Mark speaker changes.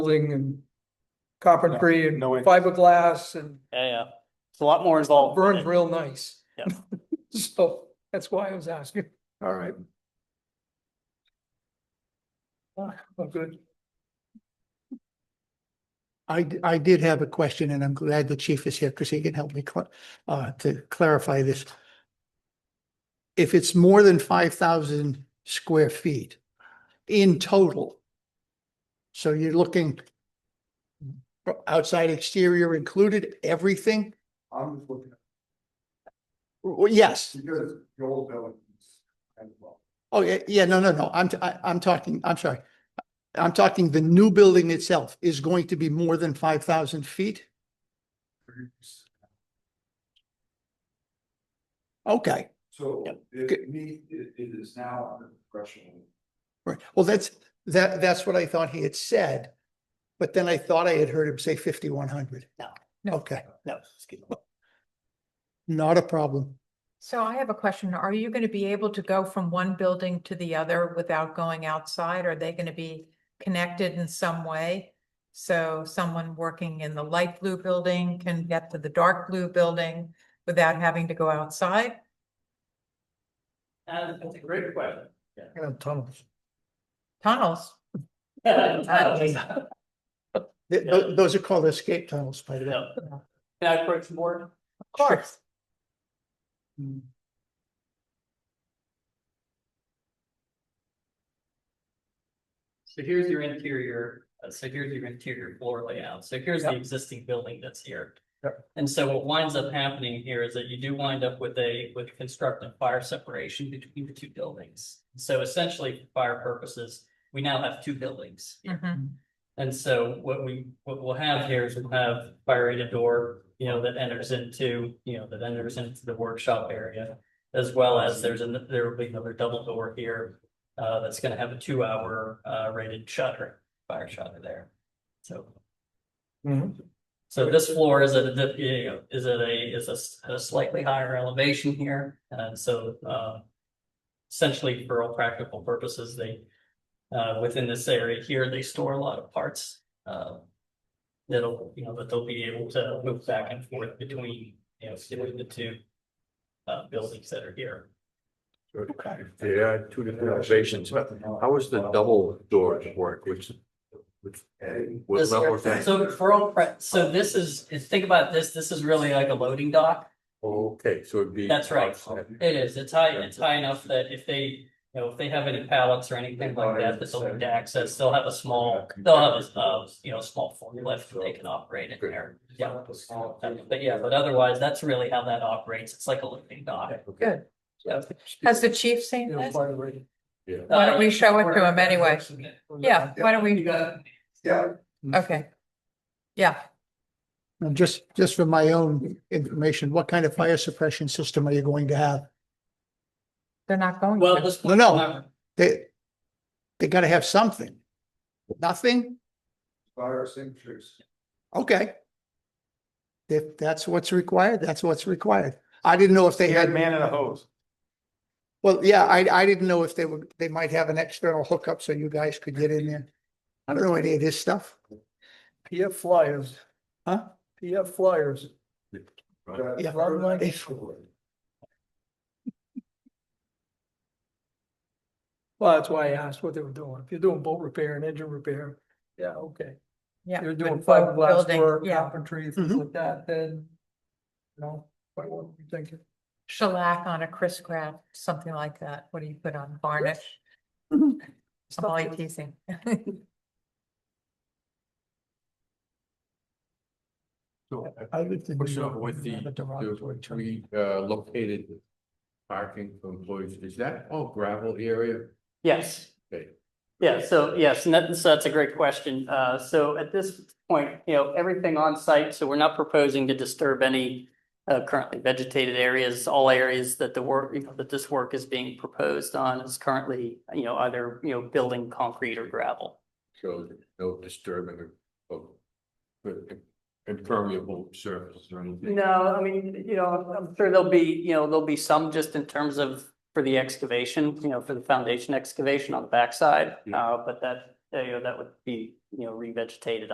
Speaker 1: building and carpentry and
Speaker 2: No way. Oh.
Speaker 1: fiberglass and
Speaker 3: Yeah, yeah. It's a lot more involved. than
Speaker 1: burns
Speaker 3: it-
Speaker 1: real nice.
Speaker 3: Yeah.
Speaker 1: So that's why I was asking.
Speaker 2: All right.
Speaker 1: Ah, well, good.
Speaker 4: I, d- I did have a question and I'm glad the chief is here because he can help me cl- uh, to clarify this. If it's more than five thousand square feet in total. So you're looking for outside exterior included, everything?
Speaker 5: I'm just looking, at
Speaker 4: Well, yes.
Speaker 5: because the old buildings as well.
Speaker 4: Oh, yeah, yeah, no, no, no. I'm, t- I, I'm talking, I'm sorry. I'm talking the new building itself is going to be more than five thousand feet? Okay.
Speaker 5: So
Speaker 3: Yep.
Speaker 5: it need, it it is now under threshold.
Speaker 4: Right, well, that's, that, that's what I thought he had said, but then I thought I had heard him say fifty-one hundred.
Speaker 3: No.
Speaker 4: Okay,
Speaker 3: No, excuse me.
Speaker 4: not a problem.
Speaker 6: So I have a question. Are you going to be able to go from one building to the other without going outside? Are they going to be connected in some way? So someone working in the light blue building can get to the dark blue building without having to go outside?
Speaker 3: Uh, that's a great question.
Speaker 4: Tunnels.
Speaker 6: Tunnels?
Speaker 3: Can Yeah.
Speaker 4: Those are called escape tunnels, by the way.
Speaker 3: Yeah. I approach the board?
Speaker 6: Of course.
Speaker 3: So here's your interior, uh, so here's your interior floor layout. So here's the existing building that's here. And so what winds up happening here is that you do wind up with a, with constructive fire separation between the two buildings. So essentially, for fire purposes, we now have two buildings here.
Speaker 6: Mhm.
Speaker 1: Mm-hmm.
Speaker 3: And so what we, what we'll have here is we'll have fire rated door, you know, that enters into, you know, that enters into the workshop area. As well as there's an, there will be another double door here, uh, that's gonna have a two hour, uh, rated shutter, fire shutter there. So. So this floor is at a, dif- you know, is at a, is a s- a slightly higher elevation here, and so, uh. Essentially, for all practical purposes, they, uh, within this area here, they store a lot of parts, uh. That'll, you know, that they'll be able to move back and forth between, you know, between the two. Uh, buildings that are here.
Speaker 2: Yeah, two different elevations. How is the double doors work, which? which
Speaker 3: This-
Speaker 2: Was not worth that.
Speaker 3: So for all, prac- so this is, think about this, this is really like a loading dock.
Speaker 2: Okay, so it'd be.
Speaker 3: That's right.
Speaker 2: outside.
Speaker 3: It is, it's high, it's high enough that if they, you know, if they have any pallets or anything like that, that they'll need to access, they'll have a small, they'll have a, uh, you know, a small forklift that they can operate in there. Yeah, Um, but yeah, but otherwise, that's really how that operates, it's like a living dock.
Speaker 6: Good.
Speaker 3: Yeah. Uh,
Speaker 6: Has the chief seen
Speaker 1: You know,
Speaker 6: this?
Speaker 1: by the way.
Speaker 6: Why don't we show it to him anyway? Yeah, why don't we?
Speaker 5: Yeah.
Speaker 6: Okay. Yeah,
Speaker 4: And just, just for my own information, what kind of fire suppression system are you going to have?
Speaker 6: they're not going.
Speaker 3: Well,
Speaker 6: to.
Speaker 3: this.
Speaker 4: No, no. They, they gotta have something. Nothing?
Speaker 5: Fire extinguishers.
Speaker 4: Okay. If that's what's required, that's what's required. I didn't know if they had.
Speaker 2: man in a hose.
Speaker 4: Well, yeah, I, I didn't know if they would, they might have an external hookup so you guys could get in there. I don't know any of this stuff.
Speaker 1: PF flyers.
Speaker 4: Huh?
Speaker 1: PF flyers.
Speaker 5: that-
Speaker 4: Yeah.
Speaker 1: Well, that's why I asked what they were doing. If you're doing boat repair and engine repair, yeah, okay.
Speaker 6: Yeah.
Speaker 1: You're doing
Speaker 6: but both
Speaker 1: fiberglass
Speaker 6: building-
Speaker 1: work,
Speaker 6: Yeah,
Speaker 1: carpentry, things
Speaker 2: Mm-hmm.
Speaker 4: Mhm.
Speaker 1: like that, then. You know, what were you thinking?
Speaker 6: shellac on a Chris craft, something like that. What do you put on varnish? I'm only teasing.
Speaker 2: So
Speaker 4: I lived in New
Speaker 2: What's up
Speaker 4: York
Speaker 2: with
Speaker 4: and I
Speaker 2: the-
Speaker 4: had derogatory
Speaker 2: uh,
Speaker 4: term.
Speaker 2: we uh located parking for employees, is that all gravel area?
Speaker 3: Yes.
Speaker 2: Okay.
Speaker 3: Yeah, so yes, and that- so that's a great question. Uh, so at this point, you know, everything on site, so we're not proposing to disturb any uh, currently vegetated areas, all areas that the work, you know, that this work is being proposed on is currently, you know, either, you know, building concrete or gravel.
Speaker 2: So no disturbing of- of of impermeable surface or anything.
Speaker 3: No, I mean, you know, I'm sure there'll be, you know, there'll be some just in terms of for the excavation, you know, for the foundation excavation on the backside.
Speaker 2: Yeah.
Speaker 3: Uh, but that, you know, that would be you know, revegetated